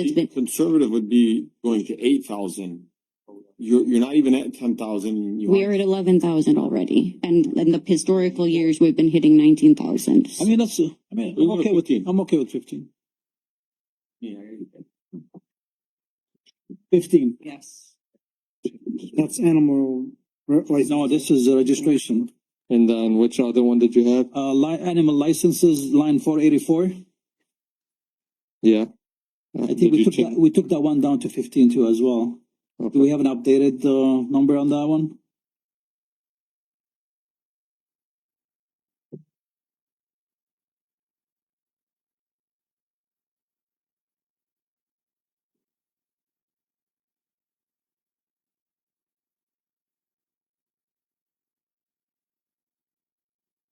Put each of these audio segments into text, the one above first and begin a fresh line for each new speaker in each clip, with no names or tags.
It's been-
Conservative would be going to eight thousand. You're, you're not even at ten thousand.
We're at eleven thousand already, and in the historical years, we've been hitting nineteen thousand.
I mean, that's, uh, I mean, I'm
We'll go
okay with,
15.
I'm okay with fifteen.
Yeah.
Fifteen.
Yes.
That's animal, right, like,
No, this is the registration.
And then which other one did you have?
Uh, li- animal licenses, line four eighty-four.
Yeah.
I think we took, that- we took that one down to fifteen too as well. Do we have an updated, uh, number on that one?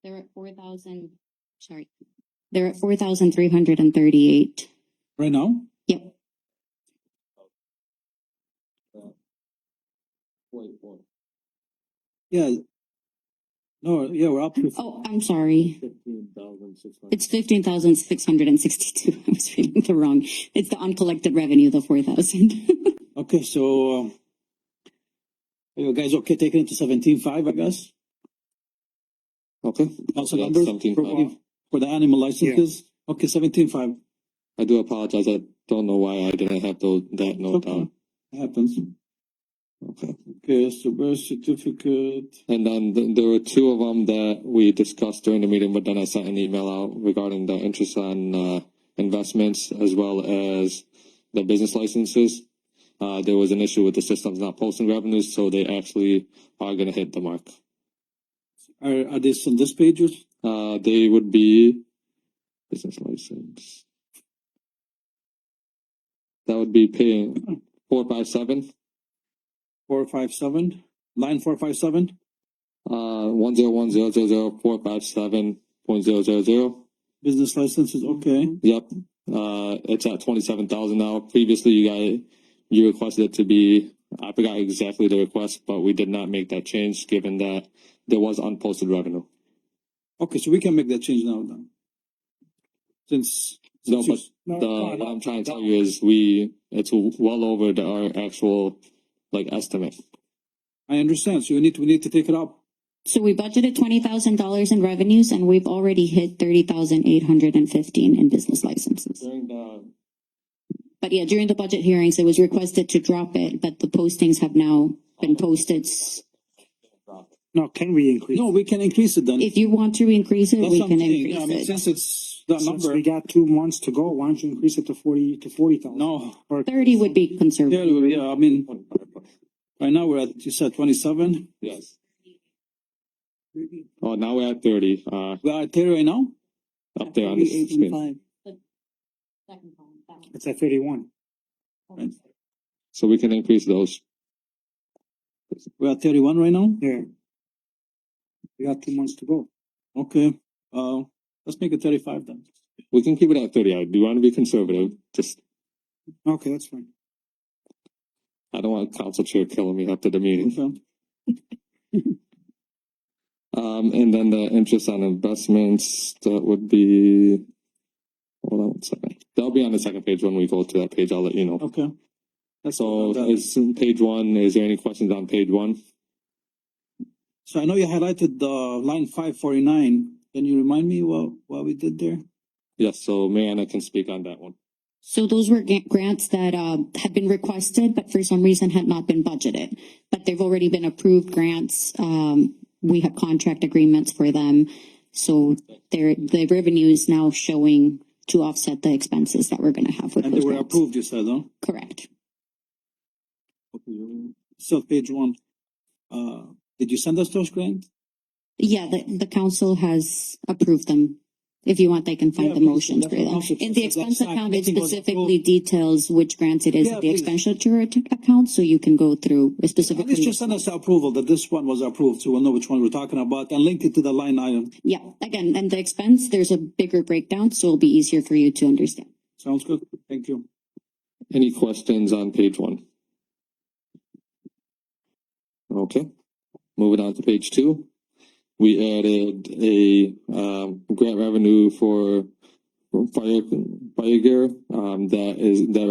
They're at four thousand, sorry, they're at four thousand three hundred and thirty-eight.
Right now?
Yep.
Yeah. No, yeah, we're up to
Oh, I'm sorry.
Fifteen thousand six hundred.
It's fifteen thousand six hundred and sixty-two. I was reading the wrong. It's the uncollected revenue, the four thousand.
Okay, so, um, are you guys okay taking it to seventeen five, I guess?
Okay,
Also
Yeah,
numbers
17,500.
for, uh, for the animal licenses? Okay, seventeen five
I do apologize. I don't know why I didn't have those, that note
Okay.
down.
happens.
Okay.
Okay, so birth certificate.
And then th- there were two of them that we discussed during the meeting, but then I sent an email out regarding the interest on uh, investments as well as the business licenses. Uh, there was an issue with the systems not posting revenues, so they actually are going to hit the mark.
Are, are this on this page? or-
Uh, they would be business license. That would be paying four five seven,
Four, five, seven? Line four, five, seven?
uh, one zero one zero zero zero four five seven point zero zero zero.
Business licenses,
Mm-hmm.
okay.
Yep, uh, it's at twenty-seven thousand now. Previously, you got, you requested it to be, I forgot exactly the request, but we did not make that change, given that there was unposted revenue.
Okay, so we can make that change now then. Since.
No,
since you-
no,
The, um,
no,
what
no.
I'm trying to tell you is we, it's well over the, our actual, like, estimate.
I understand, so you need, we need to take it up.
So we budgeted twenty thousand dollars in revenues and we've already hit thirty thousand eight hundred and fifteen in business licenses.
During the.
But yeah, during the budget hearings, it was requested to drop it, but the postings have now been posted. S-
no, can we increase?
No, we can increase it then.
If you want to increase it,
That's
we
what I'm
can
saying. Yeah, I mean,
increase it.
Since it's that
Since
number,
we got two months to go, why don't you increase it to forty, to forty thousand?
no.
Or
Thirty would be
Yeah,
conservative.
yeah, I mean, right now we're at, you said twenty-seven?
Yes. Oh, now we're at thirty, uh,
We're at thirty right now?
up there on the screen.
it's at thirty-one.
So we can increase those.
We're at thirty-one right now?
Yeah. We got two months to go.
Okay, uh, let's make it thirty-five then.
We can keep it at thirty. I do want to be conservative, just
Okay, that's fine.
I don't want council chair killing me after the meeting.
Okay.
Um, and then the interest on investments, that would be. Hold on one second. That'll be on the second page when we go to that page. I'll let you know.
Okay. That's
So
all.
it's in page one. Is there any questions on page one?
So I know you highlighted the line five forty-nine. Can you remind me what, what we did there?
Yes, so Mariana can speak on that one.
So those were ga- grants that, uh, had been requested, but for some reason had not been budgeted. But they've already been approved grants. Um, we have contract agreements for them. So their, the revenue is now showing to offset the expenses that we're gonna have with
And they
those
were
grants.
approved, you said, huh?
Correct.
So page one, uh, did you send us those grants?
Yeah, the, the council has approved them. If you want, they can
Yeah,
find the
please,
motions for
that's
them.
also-
In the
that's
expense
not-
account, it
nothing was
specifically details which grants it is
Yeah,
at the
please.
expenditure ac- account, so you can go through
At least
specifically.
just send us the approval that this one was approved, so we'll know which one we're talking about and link it to the line item.
Yeah, again, and the expense, there's a bigger breakdown, so it'll be easier for you to understand.
Sounds good? Thank you.
Any questions on page one? Okay, moving on to page two. We added a um grant revenue for fire fire gear um that is that